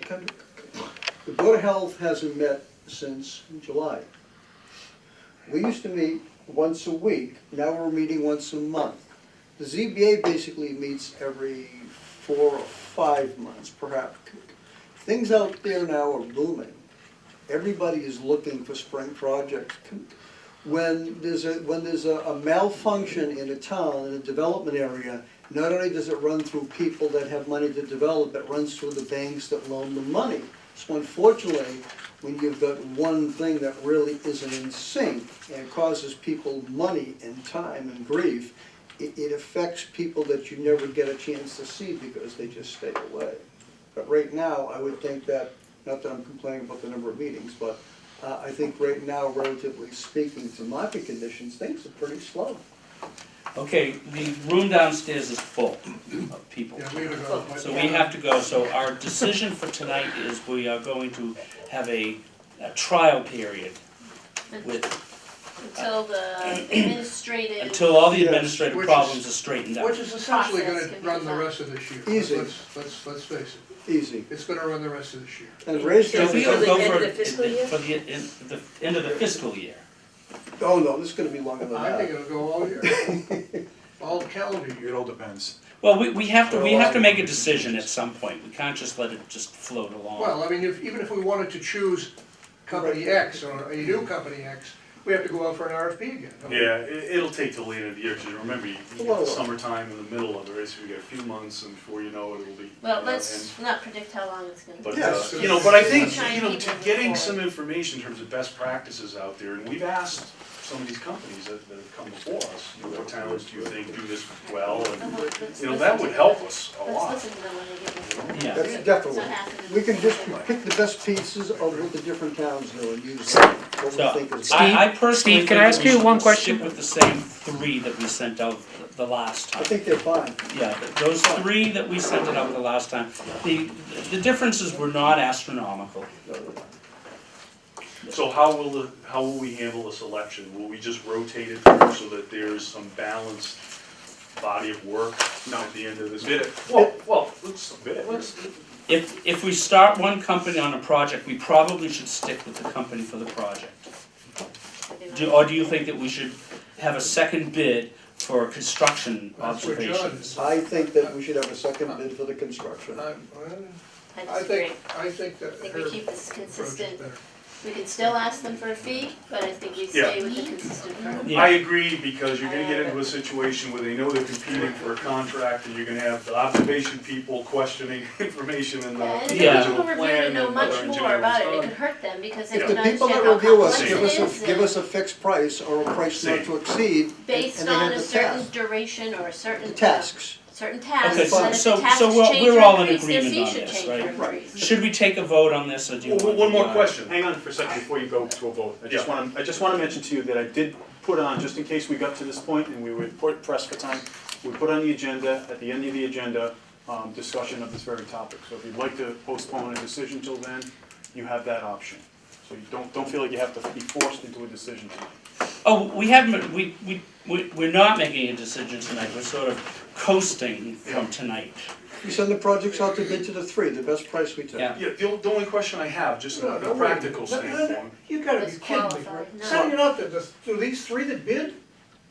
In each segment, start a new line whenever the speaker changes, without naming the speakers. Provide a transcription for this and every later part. Kendrick. The Board of Health hasn't met since July. We used to meet once a week, now we're meeting once a month. The ZBA basically meets every four or five months, perhaps. Things out there now are booming. Everybody is looking for spring projects. When there's a, when there's a a malfunction in a town, in a development area, not only does it run through people that have money to develop, it runs through the banks that loan the money. So unfortunately, when you've got one thing that really isn't in sync and causes people money and time and grief, it, it affects people that you never get a chance to see because they just stay away. But right now, I would think that, not that I'm complaining about the number of meetings, but uh, I think right now, relatively speaking to market conditions, things are pretty slow.
Okay, the room downstairs is full of people.
Yeah, we gotta go, but-
So we have to go, so our decision for tonight is we are going to have a, a trial period with,
Until the administrative.
until all the
Yes,
administrative
which is-
problems are straightened out.
Which is essentially gonna
Process can be
run the
done.
rest of this year.
Easy.
Let's, let's, let's face it,
Easy.
it's gonna run the rest of this year.
And raise
So we
taxes,
will go
Till the end
for,
of the fiscal year?
for the, in, the, end of the fiscal year.
oh no, this is gonna be longer than
I think
that.
it'll go all year, all calendar year.
It all depends.
Well, we, we have to, we have to make a decision at some point, we can't just let it just float
Well,
along.
I mean, if, even if we wanted to choose company X or a new company X, we have to go out for an RFP again. don't we?
Yeah, it, it'll take till the end of the year, because remember, you you
Well-
get summertime in the middle of it, so you get a few months, and before you know it, it'll be.
Well,
you know,
let's not predict how long it's gonna
and- But,
be.
Yes.
uh, you know, but I think,
Try and
you know,
keep
to
it
getting
forward.
some information in terms of best practices out there, and we've asked some of these companies that, that have come before us, you know, what towns do you think do this well, and,
Uh-huh, let's
you know,
listen
that
to
would
them.
help us a
Let's
lot.
listen to them when they give us.
Yeah,
That's definitely,
It's not happening.
we can just pick the best pieces of what the different towns do and use what we
so,
think is.
I, I personally
Steve, can I
think
ask
that we
you one
should
question?
stick with the same three that we sent out the- the last time.
I think they're fine.
Yeah, th- those three that we sent it out the last time, the, the differences were not astronomical.
So how will, the how will we handle the selection? Will we just rotate it through so that there's some balanced body of work at the end of this? Bid it. Well, well, let's, let's,
If, if we start one company on a project, we probably should stick with the company for the project. Do, or do you think that we should have a second bid for construction
That's where John
observations?
is.
I think that we should have a second bid for the construction.
I,
I
I
disagree.
think, I think that
I think
her
we
approach
keep this
is
consistent.
better.
We can still ask them for a fee, but I think we stay with the consistent. firm.
Yeah.
I agree, because you're gonna get into a situation where they know they're competing for a contract, and you're gonna have the observation people questioning information in
Yeah,
the
Yeah.
And if the
original
people
plan
reviewing
and
know
other
much more
engineering
about it, it
design.
could hurt them because they
If the
don't
people
understand
that
how
review us
complex
give
it
us,
is
a give us
and
a fixed price or a price not to exceed, and
based
and they
on
have
a
the
certain
task,
duration or a certain.
the tasks.
Certain tasks,
Okay,
so-
and if
so-
the
so
tasks
we're-
change
we're all
or
in
increase, their
agreement
fee
on
should
this,
change
right?
or increase.
Should we take a vote on this, or do you
Well,
want?
One more
uh,
question, hang on for a second before you go to a vote. I just
Yeah.
want to, I just want to mention to you that I did put on, just in case we got to this point and we were por- pressed for time, we put on the agenda, at the end of the agenda, um, discussion of this very topic. So if you'd like to postpone a decision till then, you have that option. So you don't, don't feel like you have to be forced into a decision tonight.
Oh, we haven't, we, we, we- we're not making a decision tonight, we're sort of coasting from tonight.
We send the projects out to bid to the three, the best price we take.
Yeah.
Yeah, the, on- the only question I have, just
No,
on
no,
a
wait.
practical
No, no, no,
standpoint,
You gotta be
That's
kidding me,
qualified,
right?
no.
Setting it up to, the- to these three that bid,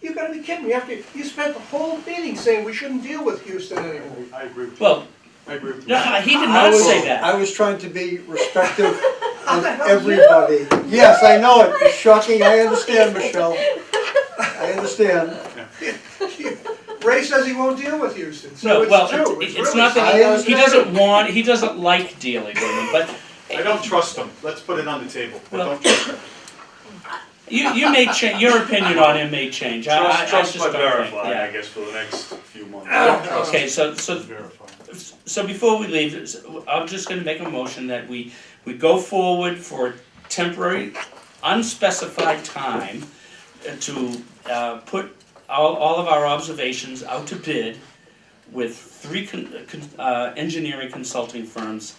you gotta be kidding me, after, you spent the whole meeting saying we shouldn't deal with Houston anymore.
I agree with you.
Well,
I agree with you.
no, he did
I
not
was-
say that.
I was trying to be respectful of
hell,
everybody. Yes, I know it, it's shocking, I understand, Michelle. I understand.
Ray says he won't deal with Houston, so
No,
it's
well,
true,
it's,
it's
it's
really
not
I
that, he- he
understand.
doesn't want, he doesn't like dealing with them, but
I don't trust them, let's put it on the table. I
Well-
don't trust them.
you, you may change, your opinion on him may change, I, I, I just
Trust, trust
don't
but
think,
verify, I
yeah.
guess, for the next few months.
Okay, so, so,
Verify.
so before we leave, s- I'm just gonna make a motion that we, we go forward for a temporary, unspecified time uh, to, uh, put all, all of our observations out to bid with three con, uh, con- uh, engineering consulting firms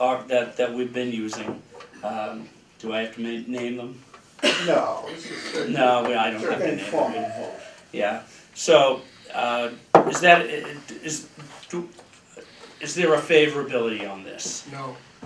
are, that, that we've been using. Um, do I have to ma- name them?
No.
No, we- I don't have to name them, yeah, so, uh, is that, is, do, is there a favorability on this?
No,